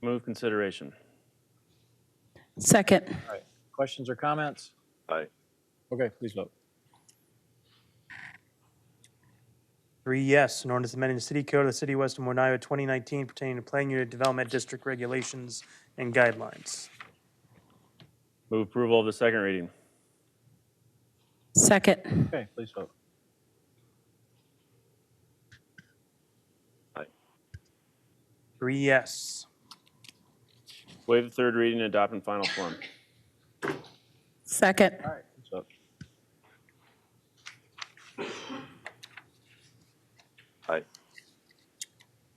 Move consideration. Second. All right. Questions or comments? Aye. Okay, please vote. Three yes, an ordinance amending the city code of the city of West Des Moines, Iowa, 2019 pertaining to plan unit development district regulations and guidelines. Move approval of the second reading. Second. Okay, please vote. Three yes. Waive the third reading and adopt in final form. Second. All right, please vote.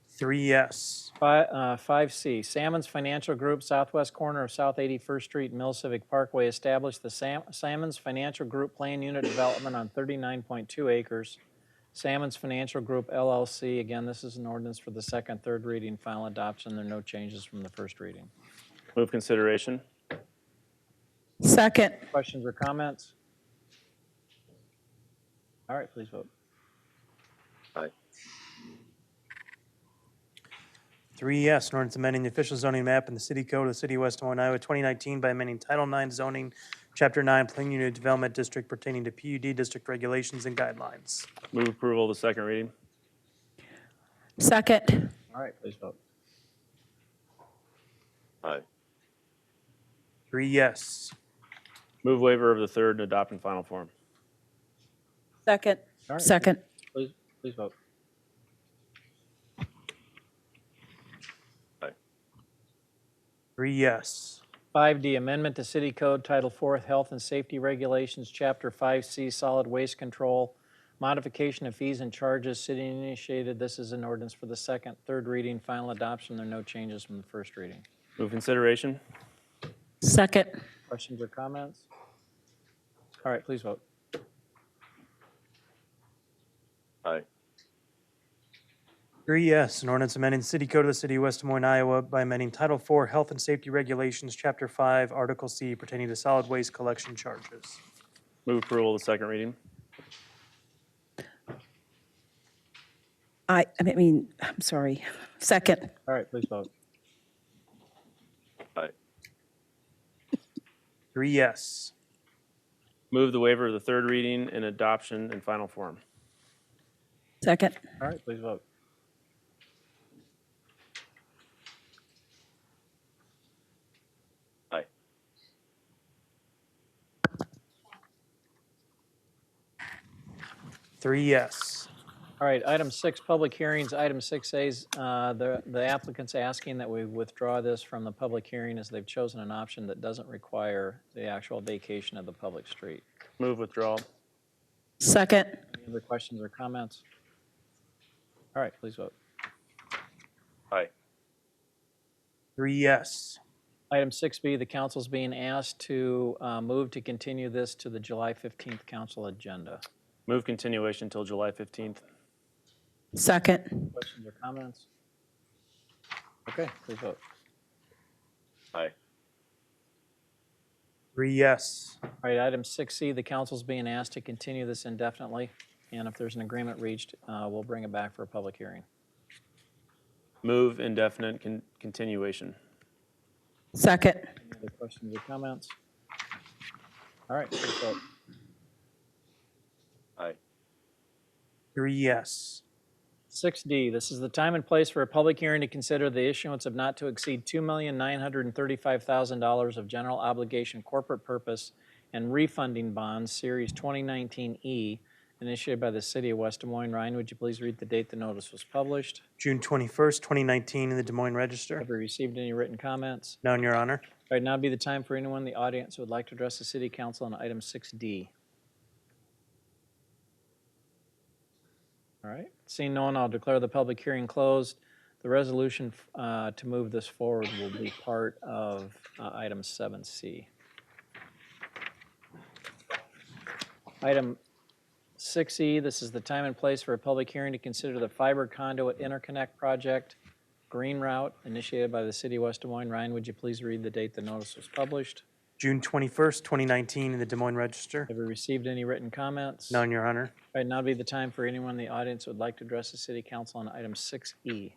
Three yes. Fi- uh, 5C, Salmon's Financial Group, southwest corner of South 81st Street, Mill Civic Parkway, established the Sam- Salmon's Financial Group Plan Unit Development on 39.2 acres. Salmon's Financial Group LLC, again, this is an ordinance for the second, third reading, final adoption. There are no changes from the first reading. Move consideration. Second. Questions or comments? All right, please vote. Three yes, an ordinance amending the official zoning map in the city code of the city of West Des Moines, Iowa, 2019 by amending Title IX zoning, Chapter 9, plan unit development district pertaining to PUD district regulations and guidelines. Move approval of the second reading. Second. All right, please vote. Three yes. Move waiver of the third and adopt in final form. Second. All right, Second. Please, please vote. Three yes. 5D, amendment to City Code Title 4th Health and Safety Regulations, Chapter 5C, Solid Waste Control, modification of fees and charges, city initiated. This is an ordinance for the second, third reading, final adoption. There are no changes from the first reading. Move consideration. Second. Questions or comments? All right, please vote. Three yes, an ordinance amending the city code of the city of West Des Moines, Iowa by amending Title IV Health and Safety Regulations, Chapter 5, Article C pertaining to solid waste collection charges. Move approval of the second reading. I, I mean, I'm sorry. Second. All right, please vote. Three E yes. Move the waiver of the third reading and adoption in final form. Second. All right, please vote. Three E yes. All right, item six, public hearings. Item 6A is, uh, the the applicant's asking that we withdraw this from the public hearing as they've chosen an option that doesn't require the actual vacation of the public street. Move withdrawal. Second. Any other questions or comments? All right, please vote. Three E yes. Item 6B, the council's being asked to uh, move to continue this to the July 15th council agenda. Move continuation till July 15th. Second. Questions or comments? Okay, please vote. Three E yes. All right, item 6C, the council's being asked to continue this indefinitely, and if there's an agreement reached, uh, we'll bring it back for a public hearing. Move indefinite con- continuation. Second. Any other questions or comments? All right, please vote. Three E yes. 6D, this is the time and place for a public hearing to consider the issuance of not to exceed $2,935,000 of general obligation corporate purpose and refunding bonds, Series 2019E, initiated by the City of West Des Moines. Ryan, would you please read the date the notice was published? June 21st, 2019 in the Des Moines Register. Have we received any written comments? None, Your Honor. All right, now would be the time for anyone in the audience who would like to address the City Council on item 6D. All right, seeing no one, I'll declare the public hearing closed. The resolution uh, to move this forward will be part of uh, item 7C. Item 6E, this is the time and place for a public hearing to consider the fiber conduit interconnect project Green Route, initiated by the City of West Des Moines. Ryan, would you please read the date the notice was published? June 21st, 2019 in the Des Moines Register. Have we received any written comments? None, Your Honor. All right, now would be the time for anyone in the audience who would like to address the City Council on item E. 6E.